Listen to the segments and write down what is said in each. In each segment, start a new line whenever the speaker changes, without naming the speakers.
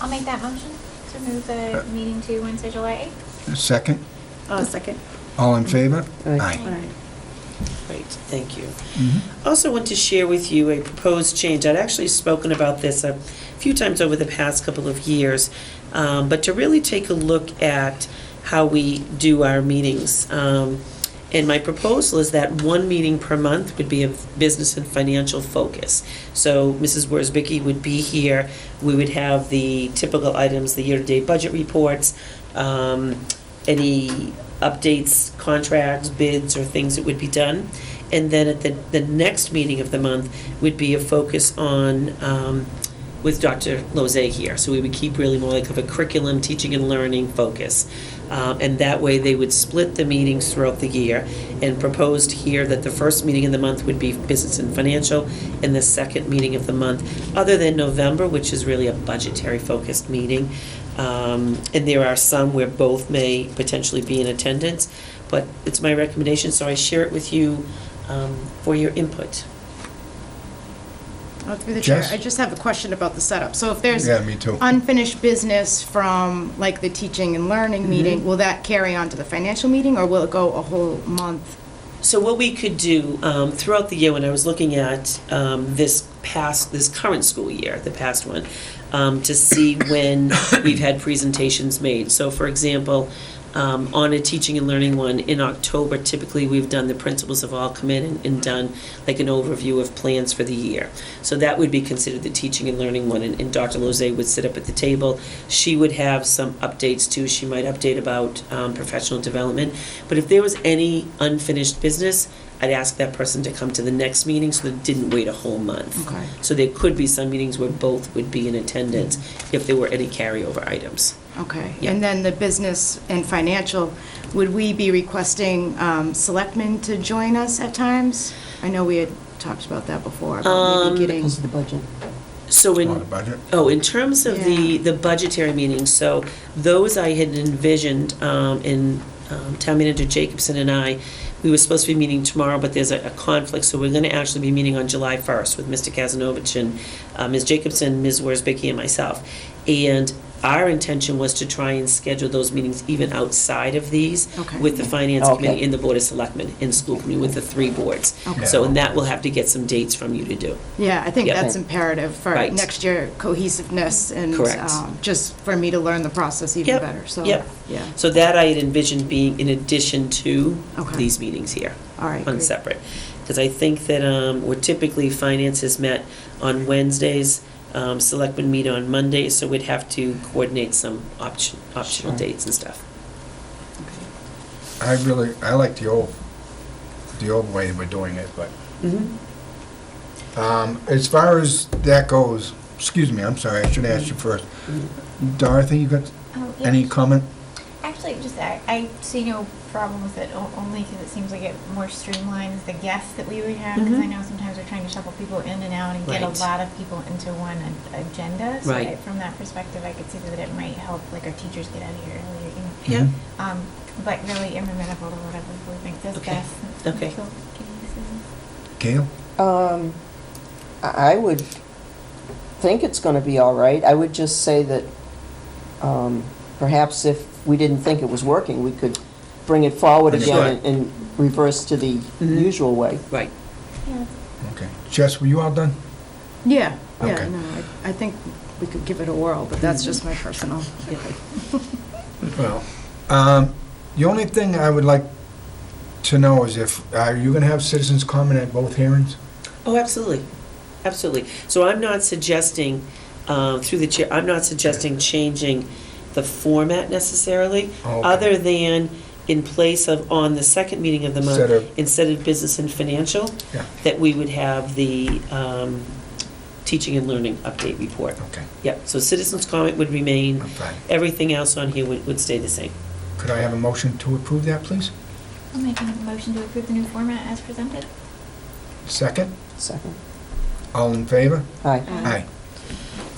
I'll make that motion to move the
Uh,
meeting to Wednesday, July
A second?
Oh, second.
All in favor?
Aye.
Aye.
All right.
Great, thank you.
Mhm.
Also want to share with you a proposed change. I'd actually spoken about this a few times over the past couple of years, um, but to really take a look at how we do our meetings. Um, And my proposal is that one meeting per month would be a business and financial focus. So Mrs. Worsbicky would be here, we would have the typical items, the year-to-date budget reports, um, any updates, contracts, bids, or things that would be done. And then at the, the next meeting of the month would be a focus on, um, with Dr. Lozay here. So we would keep really more like of a curriculum, teaching and learning focus. Um, and that way they would split the meetings throughout the year and proposed here that the first meeting of the month would be business and financial and the second meeting of the month, other than November, which is really a budgetary focused meeting. Um, and there are some where both may potentially be in attendance, but it's my recommendation, so I share it with you um, for your input.
Oh, Through the chair,
Jess?
I just have a question about the setup. So if there's
Yeah, me too.
unfinished business from like the teaching and learning meeting, will that carry on to the financial meeting or will it go a whole month?
So what we could do um, throughout the year, when I was looking at um, this past, this current school year, the past one, um, to see when we've had presentations made. So for example, um, on a teaching and learning one, in October, typically, we've done, the principals have all come in and- and done like an overview of plans for the year. So that would be considered the teaching and learning one, and and Dr. Lozay would sit up at the table. She would have some updates too, she might update about um, professional development. But if there was any unfinished business, I'd ask that person to come to the next meeting so that it didn't wait a whole month.
Okay.
So there could be some meetings where both would be in attendance if there were any carryover items.
Okay.
Yeah.
And then the business and financial, would we be requesting um, selectmen to join us at times? I know we had talked about that before, about
Um,
maybe getting,
Because
of the budget.
So in.
On the budget?
Oh, in terms of the,
Yeah.
the budgetary meetings, so those I had envisioned um, in um, Town Manager Jacobson and I, we were supposed to be meeting tomorrow, but there's a a conflict, so we're going to actually be meeting on July 1st with Mr. Kazanovich and uh, Ms. Jacobson, Ms. Worsbicky, and myself. And our intention was to try and schedule those meetings even outside of these
Okay.
with the Finance
Okay.
Committee and the Board of Selectmen and School Committee with the three boards.
Okay.
So, and that we'll have to get some dates from you to do.
yeah, I think
Yeah.
that's imperative for
Right.
next year cohesiveness and
Correct.
um, just for me to learn the process even
Yep.
better, so,
Yep.
yeah.
So that I had envisioned being in addition to
Okay.
these meetings here,
All right,
on
great.
separate. Because I think that um, we're typically, finance is met on Wednesdays, um, selectmen meet on Mondays, so we'd have to coordinate some option, optional
Sure.
dates and stuff.
I really, I like the old, the old way we're doing it, but um, as far as that goes, excuse me, I'm sorry, I should ask you first. Dorothy, you got
8th.
any comment?
Um, Actually, just, I, I see no problem with it, o- only because it seems like it more streamlines the guests that we would have. Because I
Mhm.
know sometimes we're trying to shuffle people in and out and get a
Right.
lot of people into one a- agenda. So
Right.
I- From that perspective, I could see that it might help, like our teachers get out of here earlier, you know.
Yeah.
Um, but really amenable to whatever we think this
Okay.
best.
Okay.
Feel free
Mm-hmm. Gail?
Um, I I would think it's gonna be all right. I would just say that, um, perhaps if we didn't think it was working, we could bring it forward
Bring it
again
back.
and reverse to the
Mhm.
usual way.
Right.
to use it.
Okay. Jess, were you all done?
Yeah, yeah,
Okay.
no, I, I think we could give it a whirl, but that's just my personal.
Yeah.
Well. Um, the only thing I would like to know is if, are you gonna have citizens comment at both hearings?
Oh, absolutely, absolutely. So I'm not suggesting, uh, through the chair, I'm not suggesting changing the format necessarily,
Oh, okay.
other than in place of, on the second meeting of the
Instead of-
month, instead of business and financial,
Yeah.
that we would have the um, teaching and learning update report.
Okay,
Yep, so citizens' comment would remain,
Oh. I'm fine.
everything else on here would would stay the same.
Could I have a motion to approve that, please?
I'll make a motion to approve the new format as presented.
Second?
Second.
All in favor?
Aye.
Aye.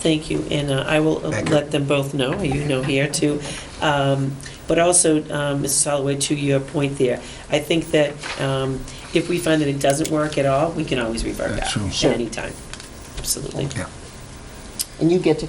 Thank you, and uh, I will uh,
Thank you.
let them both know, you know here too. Um, But also, um, Mrs. Holloway, to your point there, I think that um, if we find that it doesn't work at all, we can always revert
That's
back
true.
at
Sure.
any time. Absolutely.
Yeah.
And you get to